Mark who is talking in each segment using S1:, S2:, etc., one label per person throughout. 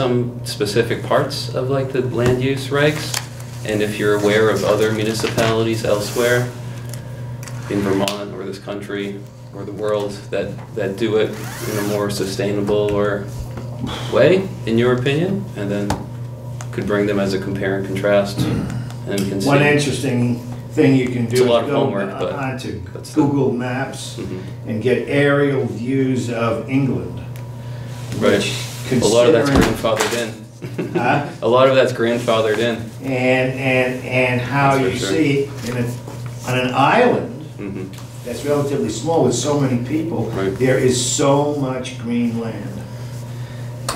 S1: some specific parts of like the land use regs, and if you're aware of other municipalities elsewhere in Vermont or this country or the world that, that do it in a more sustainable or way, in your opinion, and then could bring them as a compare and contrast and we can see.
S2: One interesting thing you can do.
S1: It's a lot of
S2: is go
S1: homework, but
S2: Onto
S1: that's the-
S2: Google Maps
S1: Mhm.
S2: and get aerial views of England.
S1: Right.
S2: which
S1: A lot of that's
S2: considering-
S1: grandfathered in.
S2: Huh?
S1: A lot of that's grandfathered in.
S2: And, and, and how
S1: That's for
S2: you
S1: sure.
S2: see, in a- on an island
S1: Mhm.
S2: that's relatively small with so many people,
S1: Right.
S2: there is so much green land.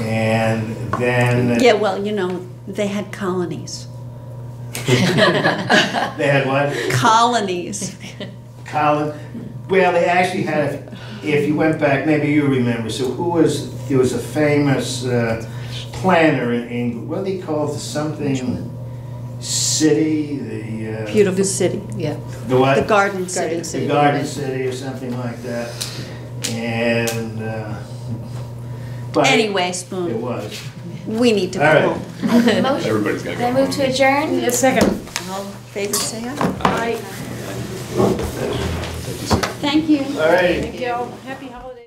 S2: And then
S3: Yeah, well, you know, they had colonies.
S2: they had what?
S3: Colonies.
S2: Colin, well, they actually had, if you went back, maybe you remember, so who was, there was a famous uh, planner in England, what do they call it, something, city, the, uh,
S3: Beautiful.
S4: The city, yeah.
S2: the
S3: The
S2: what?
S3: garden
S4: Garden
S3: city.
S4: city.
S2: The garden city or something like that, and, uh, but it
S3: Anyway, Spoon,
S2: was.
S3: we need to
S2: All right.
S3: go home.
S5: Motion,
S6: Everybody's got to
S5: then move to adjourn?
S4: Second.
S3: All in favor say aye.
S4: Aye.
S3: Thank you.
S2: All right.
S4: Thank you. Happy holidays.